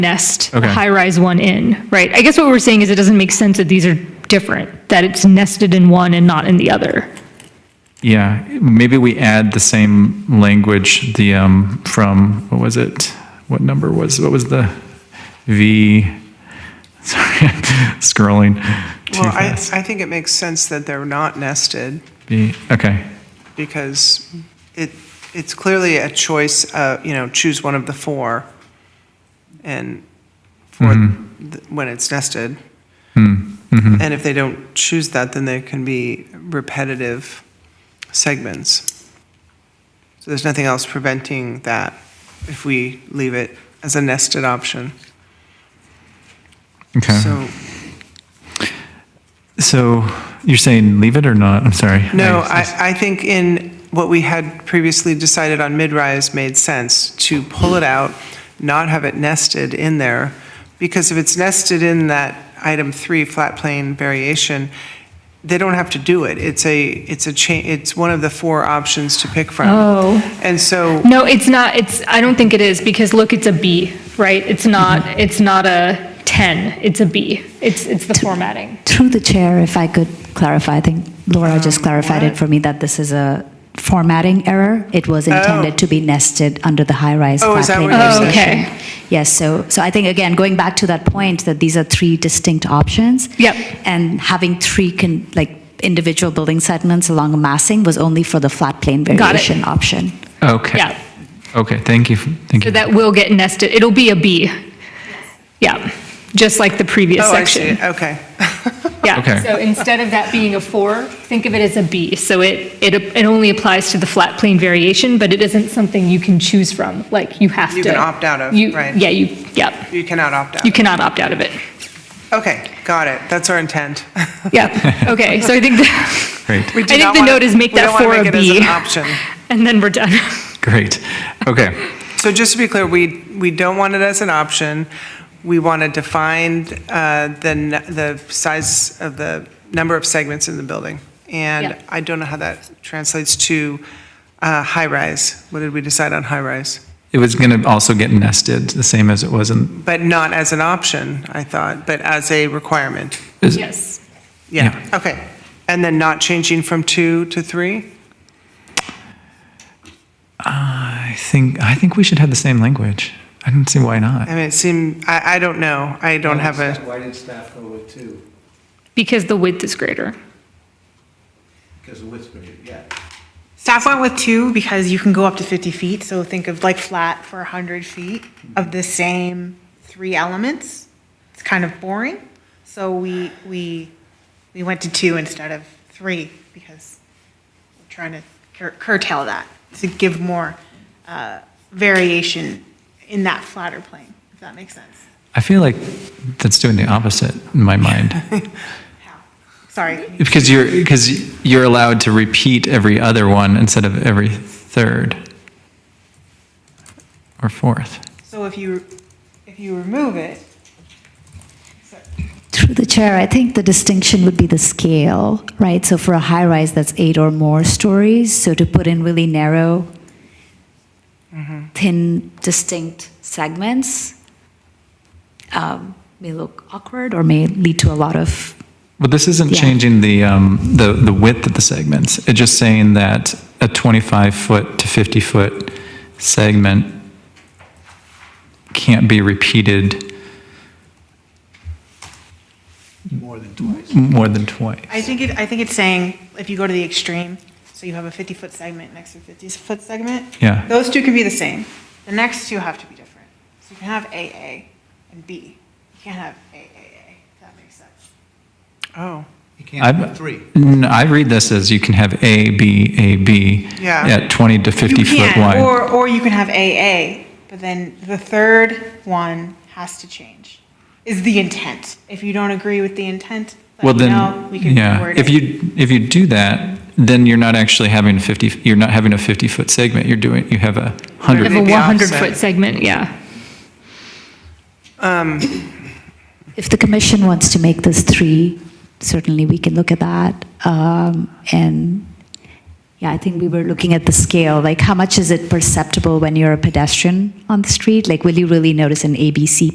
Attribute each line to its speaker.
Speaker 1: nest
Speaker 2: Okay.
Speaker 1: the high-rise one in, right? I guess what we're saying is it doesn't make sense that these are different, that it's nested in one and not in the other.
Speaker 2: Yeah, maybe we add the same language, the, um, from, what was it? What number was, what was the V? Sorry, scrolling too
Speaker 3: Well, I,
Speaker 2: fast.
Speaker 3: I think it makes sense that they're not nested
Speaker 2: V, okay,
Speaker 3: because it, it's clearly a choice, uh, you know, choose one of the four. And for, th- when it's nested. And if they don't choose that, then there can be repetitive segments. So there's nothing else preventing that if we leave it as a nested option.
Speaker 2: okay.
Speaker 3: So
Speaker 2: So you're saying leave it or not? I'm sorry.
Speaker 3: No, I, I think in what we had previously decided on mid-rise made sense to pull it out, not have it nested in there, because if it's nested in that item three, flat plane variation, they don't have to do it. It's a, it's a cha, it's one of the four options to pick from.
Speaker 1: Oh.
Speaker 3: And so,
Speaker 1: No, it's not, it's, I don't think it is, because look, it's a B, right? It's
Speaker 2: Mm-hmm.
Speaker 1: not, it's not a 10, it's a B. It's, it's the formatting.
Speaker 4: Through the chair, if I could clarify, I think Laura
Speaker 3: Um,
Speaker 4: just clarified it for me that this is a formatting error. It was intended to be nested under the high-rise.
Speaker 3: Oh, is that
Speaker 4: flat-plane
Speaker 3: what you're
Speaker 4: version.
Speaker 1: saying?
Speaker 4: Yes, so, so I think, again, going back to that point, that these are three distinct options.
Speaker 1: Yep.
Speaker 4: And having three, can like, individual building segments along a massing was only for the flat plane
Speaker 1: it.
Speaker 4: variation option.
Speaker 2: Okay.
Speaker 1: Yeah.
Speaker 2: Okay, thank you, thank
Speaker 1: So
Speaker 2: you.
Speaker 1: that will get nested, it'll be a B. Yeah, just like the previous
Speaker 3: oh, I see,
Speaker 1: section.
Speaker 3: okay.
Speaker 2: Okay.
Speaker 1: Yeah, so instead of that being a 4, think of it as a B. So it, it, it only applies to the flat plane variation, but it isn't something you can choose from, like you have to.
Speaker 3: You can opt out of,
Speaker 1: you-
Speaker 3: right.
Speaker 1: Yeah, you, yeah,
Speaker 3: You cannot opt out.
Speaker 1: you cannot opt out of it.
Speaker 3: Okay, got it. That's our intent.
Speaker 1: Yeah, okay, so I think, the-
Speaker 2: Great,
Speaker 3: We do
Speaker 1: I think
Speaker 3: not
Speaker 1: the
Speaker 3: wanna-
Speaker 1: note is make that
Speaker 3: We
Speaker 1: four
Speaker 3: don't
Speaker 1: a
Speaker 3: want to make it
Speaker 1: B.
Speaker 3: as an option.
Speaker 1: and then we're done.
Speaker 2: great. Okay,
Speaker 3: So just to be clear, we, we don't want it as an option. We want to define uh, the, n- the size of the number of segments in the building. And
Speaker 1: Yeah.
Speaker 3: I don't know how that translates to uh, high-rise. What did we decide on high-rise?
Speaker 2: it was going to also get nested, the same as it was in,
Speaker 3: But not as an option, I thought, but as a requirement.
Speaker 2: is-
Speaker 1: Yes.
Speaker 3: Yeah, okay. And then not changing from two to three?
Speaker 2: I think, I think we should have the same language. I don't see why not.
Speaker 3: I mean, it seemed, I, I don't know. I don't have a,
Speaker 5: Why did staff go with two?
Speaker 1: Because the width is greater.
Speaker 5: Because of width greater, yeah.
Speaker 6: Staff went with two because you can go up to 50 feet, so think of like flat for 100 feet of the same three elements. It's kind of boring, so we, we, we went to two instead of three because we're trying to cur- curtail that, to give more uh, variation in that flatter plane, if that makes sense.
Speaker 2: I feel like that's doing the opposite in my mind
Speaker 6: Sorry.
Speaker 2: because you're because you're allowed to repeat every other one instead of every third or fourth.
Speaker 6: So if you, if you remove it,
Speaker 4: Through the chair, I think the distinction would be the scale, right? So for a high rise, that's eight or more stories. So to put in really narrow, thin, distinct segments um, may look awkward or may lead to a lot of.
Speaker 2: Well, this isn't
Speaker 4: Yeah.
Speaker 2: changing the um, the the width of the segments. It's just saying that a 25 foot to 50 foot segment can't be repeated
Speaker 5: More than twice.
Speaker 2: more than twice.
Speaker 6: I think it, I think it's saying, if you go to the extreme, so you have a 50-foot segment next to a 50-foot segment.
Speaker 2: Yeah.
Speaker 6: Those two can be the same. The next two have to be different. So you can have AA and B. You can't have AAA, if that makes sense.
Speaker 3: oh,
Speaker 5: You can't
Speaker 2: I-
Speaker 5: have three.
Speaker 2: No, I read this as you can have A, B, A, B
Speaker 3: Yeah.
Speaker 2: at 20 to 50
Speaker 6: You
Speaker 2: foot
Speaker 6: can,
Speaker 2: wide.
Speaker 6: Or, or you can have AA, but then the third one has to change, is the intent. If you don't agree with the intent,
Speaker 2: Well,
Speaker 6: let me
Speaker 2: then,
Speaker 6: know. We can
Speaker 2: yeah,
Speaker 6: reword
Speaker 2: if
Speaker 6: it.
Speaker 2: you, if you do that, then you're not actually having a 50, you're not having a 50-foot segment, you're doing, you have a
Speaker 1: Of a
Speaker 2: 100.
Speaker 3: Maybe offset.
Speaker 1: 100-foot segment, yeah.
Speaker 3: um,
Speaker 4: If the commission wants to make this three, certainly we can look at that. Um, and yeah, I think we were looking at the scale, like how much is it perceptible when you're a pedestrian on the street? Like, will you really notice an ABC